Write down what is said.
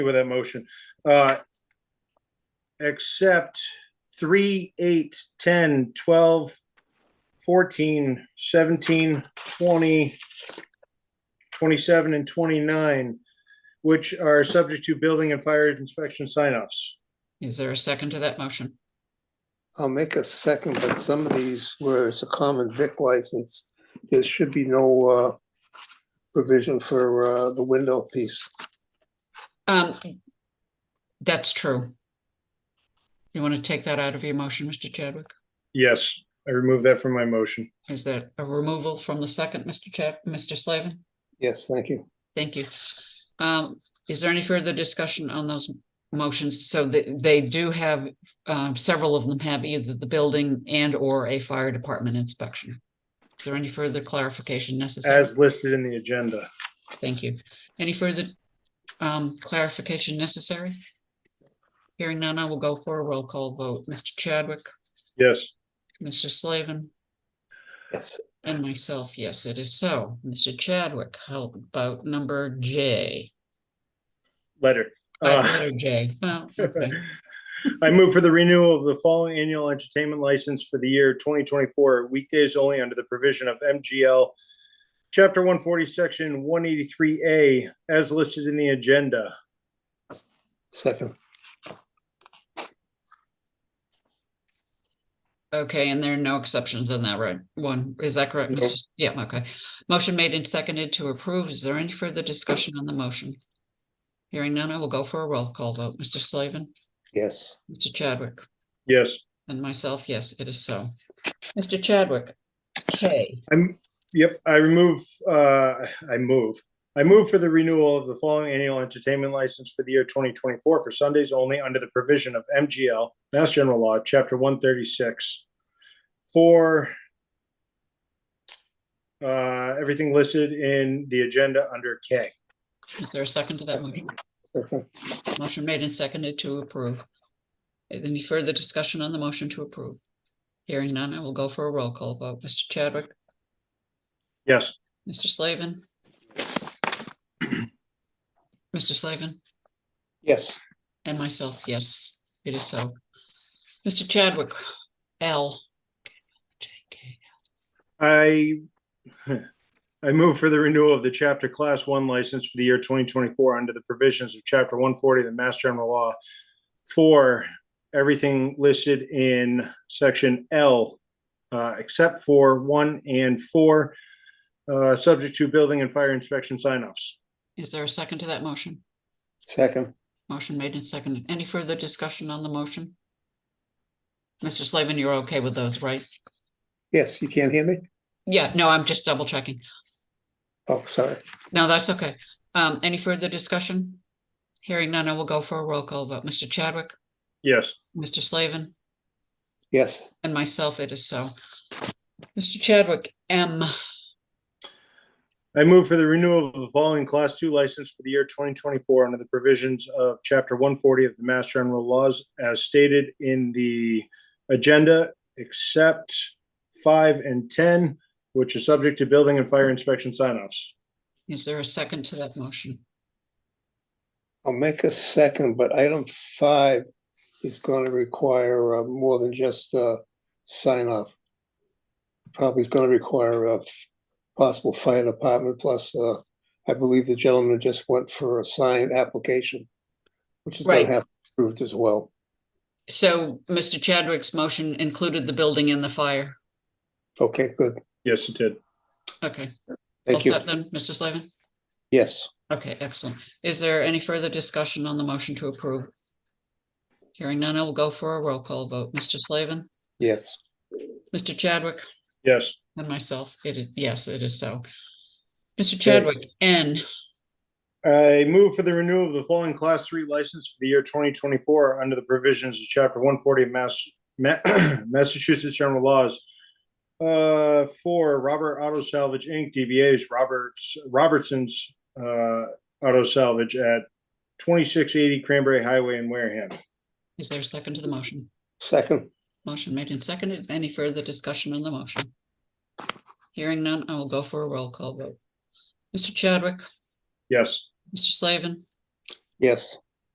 with that motion. Uh, Except three, eight, 10, 12, 14, 17, 20, 27, and 29, which are subject to building and fire inspection sign-offs. Is there a second to that motion? I'll make a second, but some of these where it's a common vic license, there should be no uh provision for uh the window piece. Um, that's true. You want to take that out of your motion, Mr. Chadwick? Yes, I remove that from my motion. Is that a removal from the second, Mr. Chad, Mr. Slavin? Yes, thank you. Thank you. Um, is there any further discussion on those motions? So they, they do have, um, several of them have either the building and or a fire department inspection. Is there any further clarification necessary? As listed in the agenda. Thank you. Any further um clarification necessary? Hearing none, I will go for a roll call vote. Mr. Chadwick, Yes, Mr. Slavin, Yes, and myself, yes, it is so. Mr. Chadwick, how about number J? letter. Uh, Uh, Letter J. Well, okay. I move for the renewal of the following annual entertainment license for the year twenty twenty-four, weekdays only under the provision of MGL Chapter one forty, section one eighty-three A, as listed in the agenda. second, Okay, and there are no exceptions on that, right? One, is that correct? No. Mr. S- Yeah, okay. Motion made and seconded to approve. Is there any further discussion on the motion? Hearing none, I will go for a roll call vote. Mr. Slavin, yes. Mr. Chadwick. Yes, And myself, yes, it is so. Mr. Chadwick, K, I'm, yep, I remove, uh, I move. I move for the renewal of the following annual entertainment license for the year twenty twenty-four for Sundays only under the provision of MGL, Mass General Law, Chapter one thirty-six. For uh, everything listed in the agenda under K. is there a second to that motion? Second. Motion made and seconded to approve. Any further discussion on the motion to approve? Hearing none, I will go for a roll call vote. Mr. Chadwick, Yes, Mr. Slavin. Mr. Slavin Yes, and myself, yes, it is so. Mr. Chadwick, L. JK. I, I move for the renewal of the chapter class one license for the year twenty twenty-four under the provisions of chapter one forty of the Mass General Law for everything listed in section L, uh, except for one and four, uh, subject to building and fire inspection sign-offs. Is there a second to that motion? second, Motion made and seconded. Any further discussion on the motion? Mr. Slavin, you're okay with those, right? yes, you can't hear me? Yeah, no, I'm just double checking. Oh, sorry, No, that's okay. Um, any further discussion? Hearing none, I will go for a roll call vote. Mr. Chadwick, Yes, Mr. Slavin, yes, and myself, it is so. Mr. Chadwick, M, I move for the renewal of the following class two license for the year twenty twenty-four under the provisions of chapter one forty of the Mass General Laws as stated in the agenda, except five and ten, which is subject to building and fire inspection sign-offs. is there a second to that motion? I'll make a second, but item five is gonna require uh more than just uh sign off. Probably is gonna require a f- possible fire department plus uh, I believe the gentleman just went for a sign application. Which is gonna Right. have to be approved as well, So Mr. Chadwick's motion included the building and the fire. okay, good, Yes, it did. Okay. all thank you, set Then, Mr. Slavin? yes, Okay, excellent. Is there any further discussion on the motion to approve? Hearing none, I will go for a roll call vote. Mr. Slavin, yes, Mr. Chadwick, Yes, and myself. It is, yes, it is so. Mr. Chadwick, N, I move for the renewal of the following class three license for the year twenty twenty-four under the provisions of chapter one forty of Mass, Ma- Massachusetts General Laws. Uh, for Robert Auto Salvage Inc., DBA's Roberts, Robertson's, uh, Auto Salvage at twenty-six eighty Cranberry Highway in Wareham. is there a second to the motion? second, Motion made and seconded. Any further discussion on the motion? Hearing none, I will go for a roll call vote. Mr. Chadwick, Yes, Mr. Slavin, yes,